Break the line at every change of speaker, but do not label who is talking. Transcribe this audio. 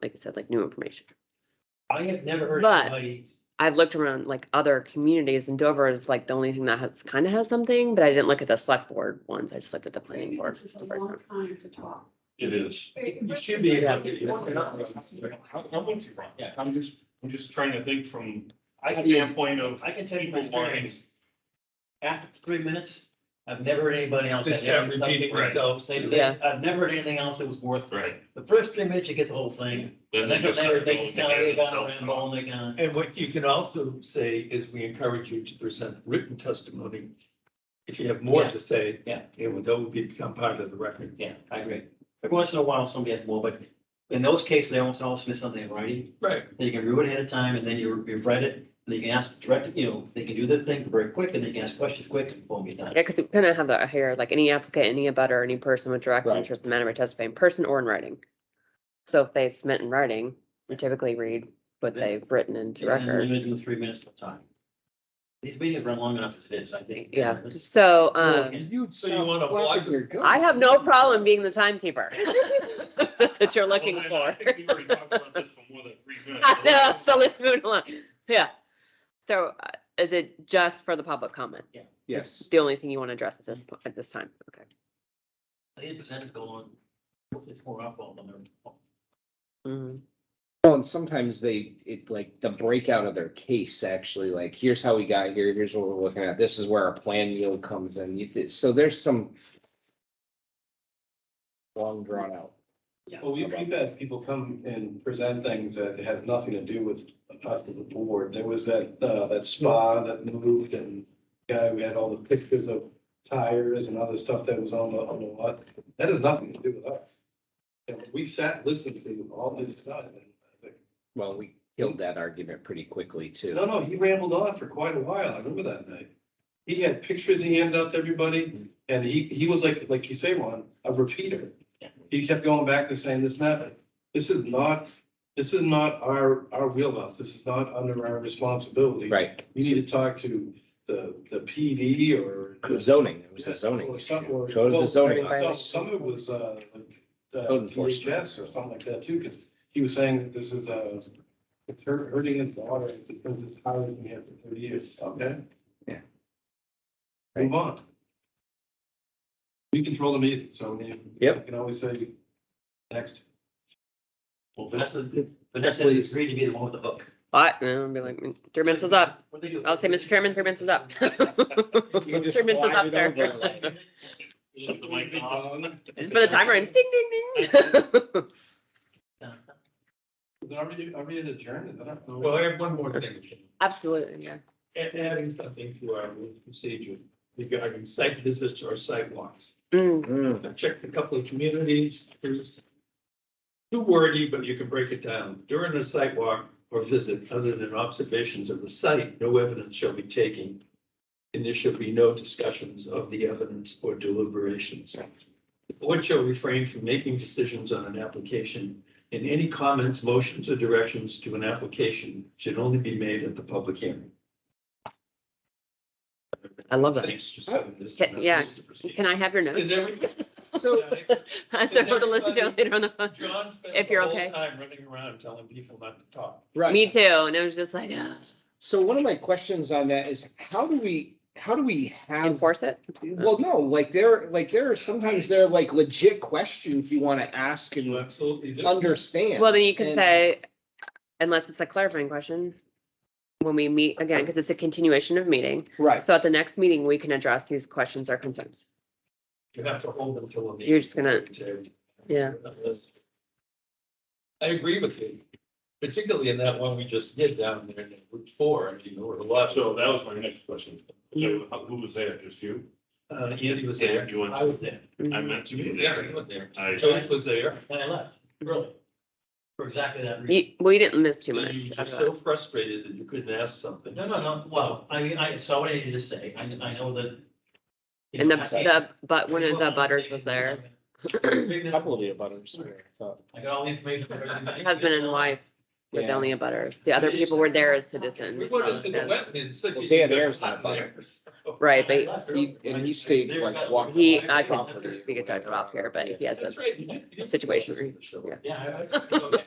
like I said, like new information.
I have never heard
But-
anybody,
I've looked around like other communities and Dover is like the only thing that has, kind of has something, but I didn't look at the select board ones. I just looked at the planning
Maybe
board.
This is a
the first
long
time.
time to talk.
It is.
you should be able to.
How, how much you run?
Yeah.
I'm just, I'm just trying to think from
I
a
can, be-
standpoint of
I can tell you my
people wanting.
experience. After three minutes, I've never heard anybody else.
Just
say that
start
stuff
repeating
Right.
themselves. They- they-
Yeah.
I've never heard anything else that was worth.
Right.
The first three minutes, you get the whole thing.
Then
And
they
then
"Oh,
from
just.
there,
start
they just
building
kind of, they
together
got
themselves.
ramble and they gone.
And what you can also say is we encourage you to present written testimony. If you have more
Yeah.
to say.
Yeah.
It would, that would become part of the record.
Yeah, I agree. Every once in a while, somebody has more, but in those cases, they almost always submit something in writing.
Right.
Then you can review it ahead of time and then you, you've read it, and you can ask direct, you know, they can do this thing very quick and they can ask questions quick and boom, you're done.
Yeah, because we kind of have that here, like any applicant, any abutter, any person with direct
Right.
interest in the matter may testify in person or in writing. So if they submit in writing, we typically read what
Yeah.
they've written into
And then
record.
limited to three minutes of time. These meetings run long enough as it is, I think.
Yeah,
Let's-
so,
Well,
um,
You'd. So you wanna block.
I have no problem being the timekeeper. If That's what you're
Well,
looking
then I
for.
think we already talked about this for more than three minutes.
I know, so let's move along. Yeah. So uh, is it just for the public comment?
Yes.
The only thing you want to address at this, po- at this time? Okay.
They presented go on, it's more up on them.
Mhm.
Well, and sometimes they, it like the breakout of their case actually, like, here's how we got here, here's what we're looking at, this is where our plan yield comes in. You th- So there's some long drawn out.
Well, we- we've had people come and present things that has nothing to do with us as a board. There was that, uh, that spa that moved and guy who had all the pictures of tires and other stuff that was on the, on the lot. That has nothing to do with us. And we sat listening to all this stuff. and I think,
Well, we killed that argument pretty quickly too.
No, no, he rambled on for quite a while. I remember that night. He had pictures he handed out to everybody and he, he was like, like you say, Juan, a repeater. he kept going back to saying this method. This is not, this is not our, our wheelhouse. This is not under our responsibility.
Right,
We need to talk to the, the PD or.
zoning, it was a zoning
Or
issue.
some- or-
Go to the
well,
zoning
I thought
office.
Some of it was, uh, uh,
Code enforcement.
DHS or something like that too, because he was saying that this is, uh, it's hurt- hurting his daughter because it's higher than here for thirty years. Okay.
Yeah.
Move on. We control the meeting, so we.
Yep.
Can always say, next.
Well, Vanessa, Vanessa
Please.
agreed to be the one with the hook.
But, and I'll be like, "Mm, three minutes is up.
What'd they do?
I'll say, Mr. Chairman, three minutes is up.
You can just
Three minutes is
slide
up,
it
sir.
over like-
Shut the mic off.
Just put a timer in, ding, ding, ding.
Is it already, already adjourned? Is that not-
Well, I have one more thing.
Absolutely, yeah.
Add- Adding something to our rules of procedure regarding site visits or sidewalks.
Mm,
Mm.
I've checked a couple of communities, there's too wordy, but you can break it down. During a site walk or visit, other than observations of the site, no evidence shall be taken. And there shall be no discussions of the evidence or deliberations. The board shall refrain from making decisions on an application, and any comments, motions, or directions to an application should only be made at the public hearing.
I love that.
Thanks, just having this. uh,
Ca- Oh, yeah.
this to proceed.
Can I have your
Is
notes?
everything?
So, I still have to listen to it later on the phone.
John spent
If
the
you're
whole
okay.
time running around telling people not to talk.
Right.
Me too. And it was just like, "Ugh."
So one of my questions on that is how do we, how do we have?
enforce it.
Well, no, like there, like there are sometimes there are like legit questions you want to ask
You
and
absolutely do.
understand.
Well, then you could
And-
say, unless it's a clarifying question, when we meet again, because it's a continuation of meeting.
Right,
So at the next meeting, we can address these questions or concerns.
You have to hold them till. the
You're just gonna-
meeting.
Yeah.
I agree with you, particularly in that one we just did down there in Route Four, and you know, where a lot of,
So that was my next question. So how- who was there? Just you?
uh, Andy was there,
You went-
I was there.
I
Mhm.
meant to
You
be
were
there.
there, you were there.
I-
Joyce was there.
And I left, really. For exactly that reason.
You- We didn't miss too
and
much. Uh,
You were
out
just
of that.
so frustrated that you couldn't ask something.
No, no, no, well, I mean, I saw what I needed to say, I, I know that.
And the, the, but one of the butters was there,
a couple of the abutters. were, I thought.
I got all the information. from everybody.
husband and wife with
Yeah.
only a butters. The other people were there as citizens. Um,
We went into the
Yes.
wetlands. so
Well,
you
Dan
could-
Ayers not a butter.
Right,
I
but
left
He-
early.
And he stayed like walking.
he,
away
I
from
could,
the-
we could talk about here, but he has a
That's right, you did- you did
situation
tell us
where-
in the show.
yeah.
Yeah, I- I-
Okay.